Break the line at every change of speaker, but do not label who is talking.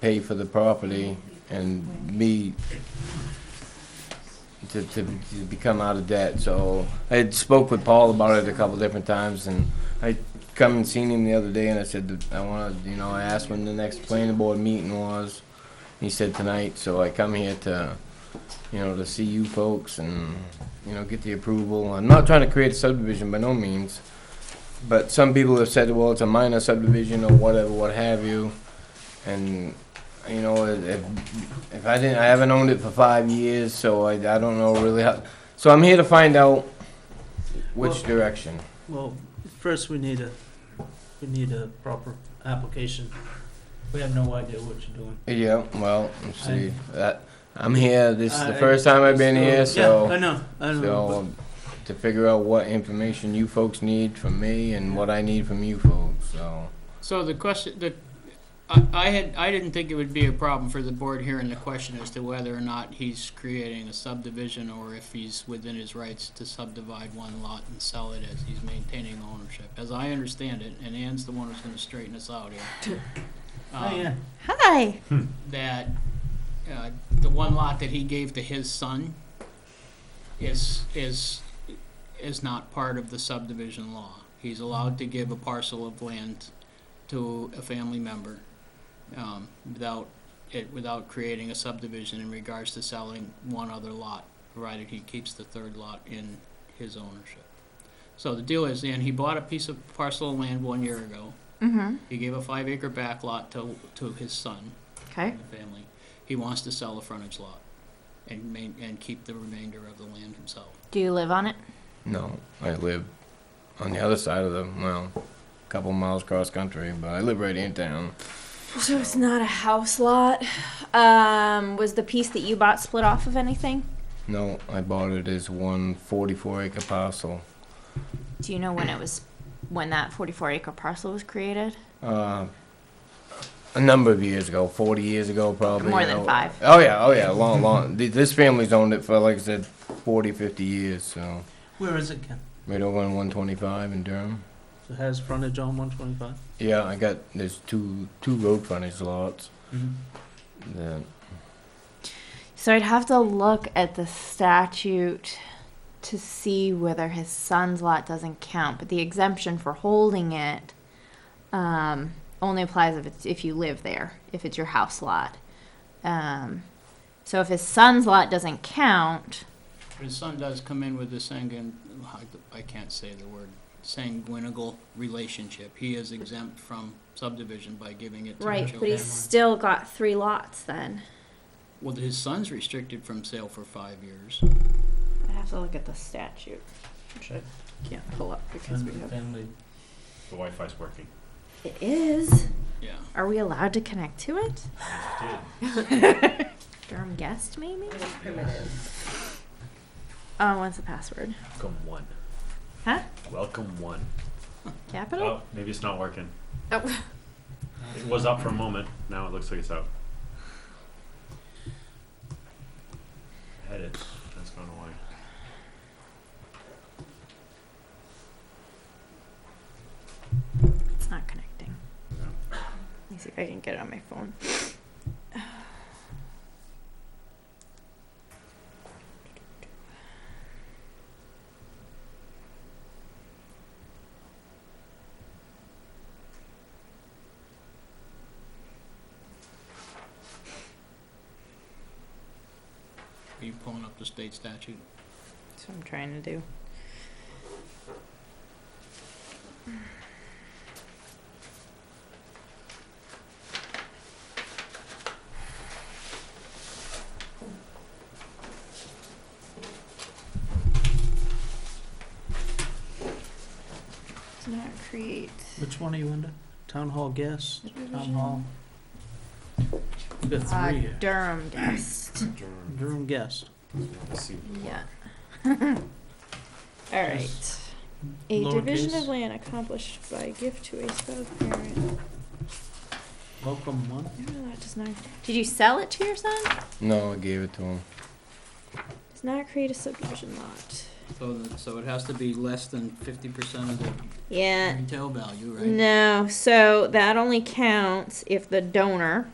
pay for the property and me to, to, to become out of debt. So I had spoke with Paul about it a couple different times, and I come and seen him the other day, and I said that I want to, you know, I asked when the next planning board meeting was. He said tonight, so I come here to, you know, to see you folks and, you know, get the approval. I'm not trying to create a subdivision by no means, but some people have said, well, it's a minor subdivision or whatever, what have you, and you know, if, if I didn't, I haven't owned it for five years, so I, I don't know really how, so I'm here to find out which
Well-
direction.
Well, first we need a, we need a proper application. We have no idea what you're doing.
Yeah, well, let's see,
I-
that, I'm here, this is the
I-
first time I've been here,
Uh, Yeah, I
so,
know, I know.
so um, to figure out what information you folks need from me and what I need from you folks, so.
So the question, the, I, I had, I didn't think it would be a problem for the board hearing the question as to whether or not he's creating a subdivision or if he's within his rights to subdivide one lot and sell it as he's maintaining ownership. As I understand it, and Ann's the one who's gonna straighten us out here.
uh,
but- Oh, yeah.
um,
Hi.
That, uh, the one lot that he gave to his son is, is, is not part of the subdivision law. He's allowed to give a parcel of land to a family member, um, without it, without creating a subdivision in regards to selling one other lot, provided he keeps the third lot in his ownership. So the deal is, and he bought a piece of parcel of land one year ago.
Mm-hmm.
He gave a five acre back lot to, to his son
Okay.
and the family. He wants to sell the frontage lot and main, and keep the remainder of the land himself.
Do you live on it?
No, I live on the other side of the, well, a couple miles cross country, but I live right in town.
So it's not a house lot. Um, was the piece that you bought split off of anything?
No, I bought it as one 44 acre parcel.
Do you know when it was, when that 44 acre parcel was created?
Uh, a number of years ago, 40 years ago, probably.
More
you
than
know.
five.
Oh, yeah, oh, yeah, long, long. Th- This family's owned it for, like I said, 40, 50 years, so.
Where is it, Ken?
Right over on 125 in Durham.
It has frontage on one twenty-five?
Yeah, I got, there's two, two road frontage lots.
Mm-hmm.
that-
So I'd have to look at the statute to see whether his son's lot doesn't count, but the exemption for holding it um, only applies if it's if you live there, if it's your house lot. Um, so if his son's lot doesn't count,
His son does come in with the Sanguin, I- I can't say the word, sanguinical relationship. He is exempt from subdivision by giving it to the
right? But
children.
he's still got three lots. Then
Well, his son's restricted from sale for five years.
I have to look at the statute, which I can't pull up because we have.
Family.
The Wi-Fi's working.
It is.
Yeah.
Are we allowed to connect to it? Durham guest, maybe? Uh, what's the password?
Welcome one.
Huh?
Welcome one.
Capital?
Oh, maybe it's not working.
Oh.
It was up for a moment. Now it looks like it's out. I had it. That's gone away.
It's not connecting.
Yeah.
Let me see if I can get it on my phone.
Are you pulling up the state statute?
That's what I'm trying to do. Does not create.
Which one are you under? Town hall guest, town hall? We've got
Uh,
three here.
Durham guest.
Durham guest.
Yeah. All right. A division
Lowercase.
of land accomplished by gift to a spouse parent.
Welcome one.
No, that does not. Did you sell it to your son?
No, I gave it to him.
Does not create a subdivision lot.
So, the- so it has to be less than fifty percent of the
Yeah.
retail value, right?
No. So that only counts if the donor